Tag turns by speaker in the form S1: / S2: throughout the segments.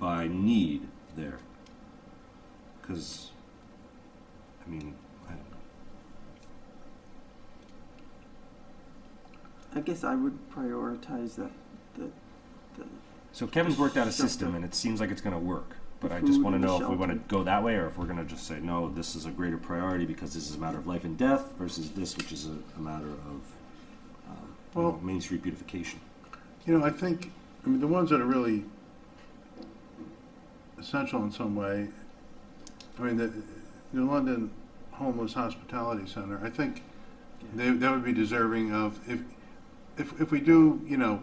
S1: I need there. Because, I mean, I,
S2: I guess I would prioritize the, the, the,
S1: so Kevin's worked out a
S2: Shelter.
S1: system, and it seems like it's going to work. But
S2: The
S1: I just
S2: food
S1: want to
S2: and the
S1: know if we want
S2: shelter.
S1: to go that way, or if we're going to just say no. This is a greater priority because this is a matter of life and death versus this, which is a, a matter of um, you know,
S3: Well-
S1: Main Street beautification.
S3: You know, I think, I mean, the ones that are really essential in some way, I mean, the New London Homeless Hospitality Center, I think they, that would be deserving of, if, if, if we do, you know,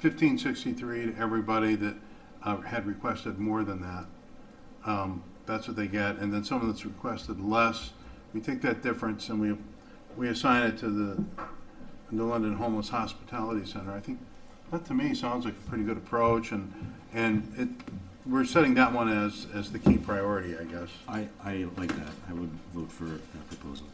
S3: fifteen sixty-three to everybody that uh, had requested more than that, um, that's what they get, and then someone that's requested less, we take that difference and we, we assign it to the the London Homeless Hospitality Center. I think that to me sounds like a pretty good approach and, and it, we're setting that one as, as the key priority, I guess.
S1: I, I like that. I would vote for that proposal.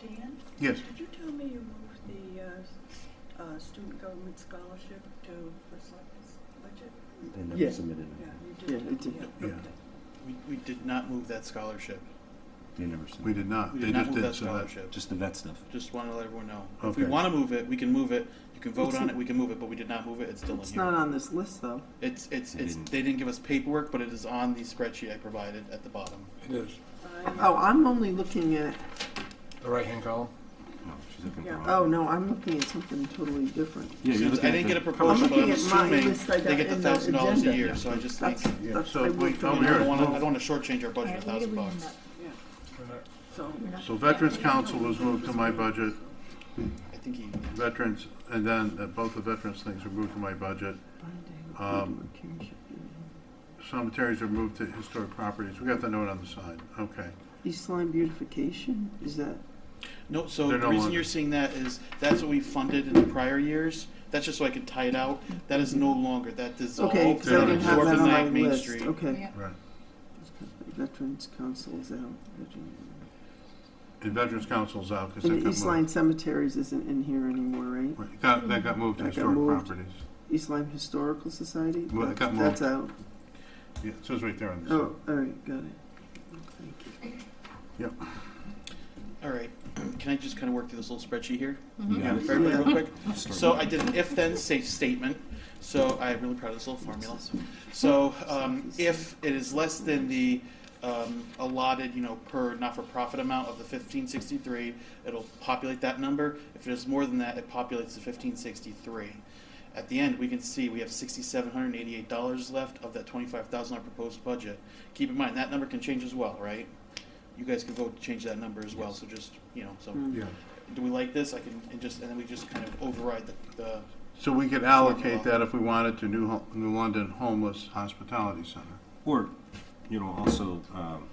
S4: Dan,
S3: Yes,
S4: did you tell me you moved the uh, s- uh, student government scholarship to the selectmen's budget?
S1: They never
S2: Yeah.
S1: submitted.
S4: Yeah,
S1: Anything.
S4: you
S2: Yeah,
S4: did.
S2: I did.
S3: Yeah.
S4: okay.
S5: We, we did not move that scholarship.
S1: They never submitted.
S3: we did not.
S5: We
S3: They
S5: did not
S3: just
S5: move
S3: did
S5: that
S3: so that.
S5: scholarship.
S1: Just the vet stuff.
S5: Just want to let everyone know. If we
S3: Okay.
S5: want to move it, we can move it. You can vote
S2: It's-
S5: on it, we can move it, but we did not move it. It's still in
S2: it's not
S5: here.
S2: on this list though.
S5: It's, it's,
S1: They
S5: it's,
S1: didn't-
S5: they didn't give us paperwork, but it is on the spreadsheet I provided at the bottom.
S6: It is.
S4: I-
S2: Oh, I'm only looking at,
S6: The right-hand column?
S1: No, she's looking
S4: Yeah.
S1: for.
S2: oh no, I'm looking at something totally different.
S1: Yeah, you're
S5: Since
S1: looking
S5: I
S1: at
S5: didn't
S1: the-
S5: get a proposal,
S2: I'm
S5: but I'm
S2: looking at my
S5: assuming
S2: list I
S5: they
S2: got
S5: get the
S2: in the
S5: thousand dollars a
S2: agenda.
S5: year, so I just think,
S2: That's,
S3: Yeah,
S2: that's,
S3: so
S2: I
S3: if we
S2: moved
S5: you
S3: come
S2: it
S5: know, I
S3: here-
S2: up.
S5: don't want to, I don't want to shortchange our budget a thousand bucks.
S4: So,
S3: So Veterans Council was moved to my budget,
S5: I think he,
S3: veterans, and then uh, both the veterans things were moved to my budget. Um, Cemeteries are moved to historic properties. We got the note on the side, okay.
S2: East Line beautification, is that,
S5: no, so
S3: They're
S5: the
S3: no
S5: reason
S3: longer-
S5: you're seeing that is, that's what we funded in the prior years. That's just so I can tie it out. That is no longer, that dissolved.
S2: okay, cause I
S3: They're
S2: didn't have
S3: absorbed
S2: that
S3: in
S2: on
S3: that
S2: my
S5: Main
S2: list,
S5: Street.
S2: okay.
S3: Right.
S2: Veterans Council is out. Veteran-
S3: And Veterans Council's out because that
S2: And the East
S3: got
S2: Line
S3: moved.
S2: Cemeteries isn't in here anymore, right?
S3: Right, That, that got moved to
S2: That got
S3: historic
S2: moved.
S3: properties.
S2: East Line Historical Society?
S3: Well, it got
S2: That's out.
S3: Yeah, it says right there on the side.
S2: Oh, all right, got it. Thank you.
S5: All right, can I just kind of work through this little spreadsheet here?
S1: Yeah.
S5: For everybody real quick?
S1: Start
S5: So
S1: with-
S5: I did an if-then safe statement, so I'm really proud of this little formula. So um, if it is less than the um, allotted, you know, per not-for-profit amount of the fifteen sixty-three, it'll populate that number. If it is more than that, it populates the fifteen sixty-three. At the end, we can see we have sixty-seven hundred and eighty-eight dollars left of that twenty-five thousand dollar proposed budget. Keep in mind, that number can change as well, right? You guys can vote to change that number as well, so just, you know, so,
S2: Mm.
S3: Yeah.
S5: do we like this? I can, and just, and then we just kind of override the, the
S3: So we could allocate that if we wanted to New, Ho- New London Homeless Hospitality Center.
S1: Or, you know, also um,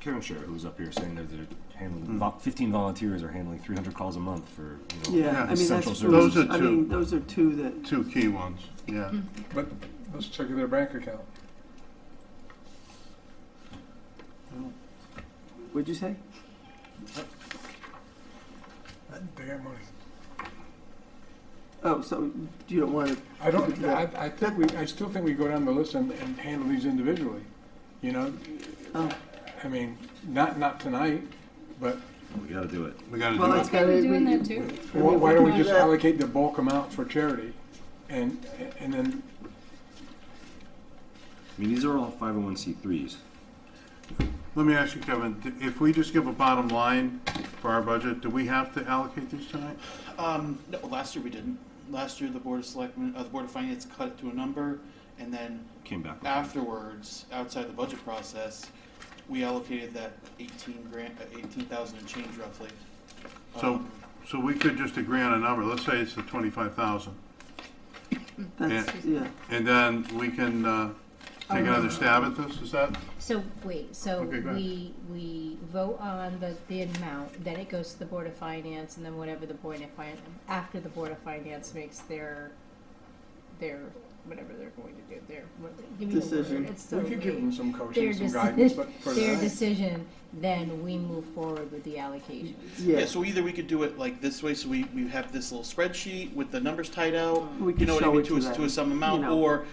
S1: Karen Scher, who was up here saying that they're handling vo- 15 volunteers are handling 300 calls a month for you know
S2: Yeah, I mean, that's,
S1: essential
S3: Those
S1: services.
S3: are
S2: I
S3: two.
S2: mean, those are two that,
S3: Two key ones, yeah.
S6: But let's check their bank account.
S2: what'd you say?
S6: They got money.
S2: Oh, so you don't want to,
S6: I don't, I, I think we, I still think we go down the list and, and handle these individually, you know?
S2: Oh.
S6: I mean, not, not tonight, but
S1: We got to do it.
S3: We gotta
S2: well,
S3: do
S2: it's
S3: it.
S2: got to
S7: We're
S2: be.
S7: doing that too.
S6: why why don't we just
S2: Yeah.
S6: allocate the bulk amount for charity? And, and then,
S1: I mean, these are all 501c3s.
S3: Let me ask you, Kevin, d- if we just give a bottom line for our budget, do we have to allocate these tonight?
S5: Um, no, last year we didn't. Last year, the Board of Selectmen, uh, the Board of Finance cut it to a number, and then
S1: Came back.
S5: afterwards, outside the budget process, we allocated that eighteen grand, uh, eighteen thousand and change roughly.
S3: So,
S5: Um,
S3: so we could just agree on a number, let's say it's the twenty-five thousand.
S2: That's, yeah,
S3: And then we can, uh, take another stab at this, is that?
S7: So, wait, so
S3: Okay, go ahead.
S7: we, we vote on the, the amount, then it goes to the Board of Finance, and then whatever the Board of Finance, after the Board of Finance makes their, their, whatever they're going to do, their, what- give me the
S2: Decision.
S7: word, it's so
S6: we could give
S7: vague.
S6: them some
S7: Their
S6: coaching, some guidance, but for
S7: decision, their
S6: tonight.
S7: decision, then we move forward with the allocation.
S2: yeah.
S5: Yeah, so either we could do it like this way, so we, we have this little spreadsheet with the numbers tied out,
S2: We
S5: you
S2: can
S5: know what I
S2: show
S5: mean,
S2: it to
S5: to a, to a
S2: them.
S5: sum amount,
S2: know.
S5: or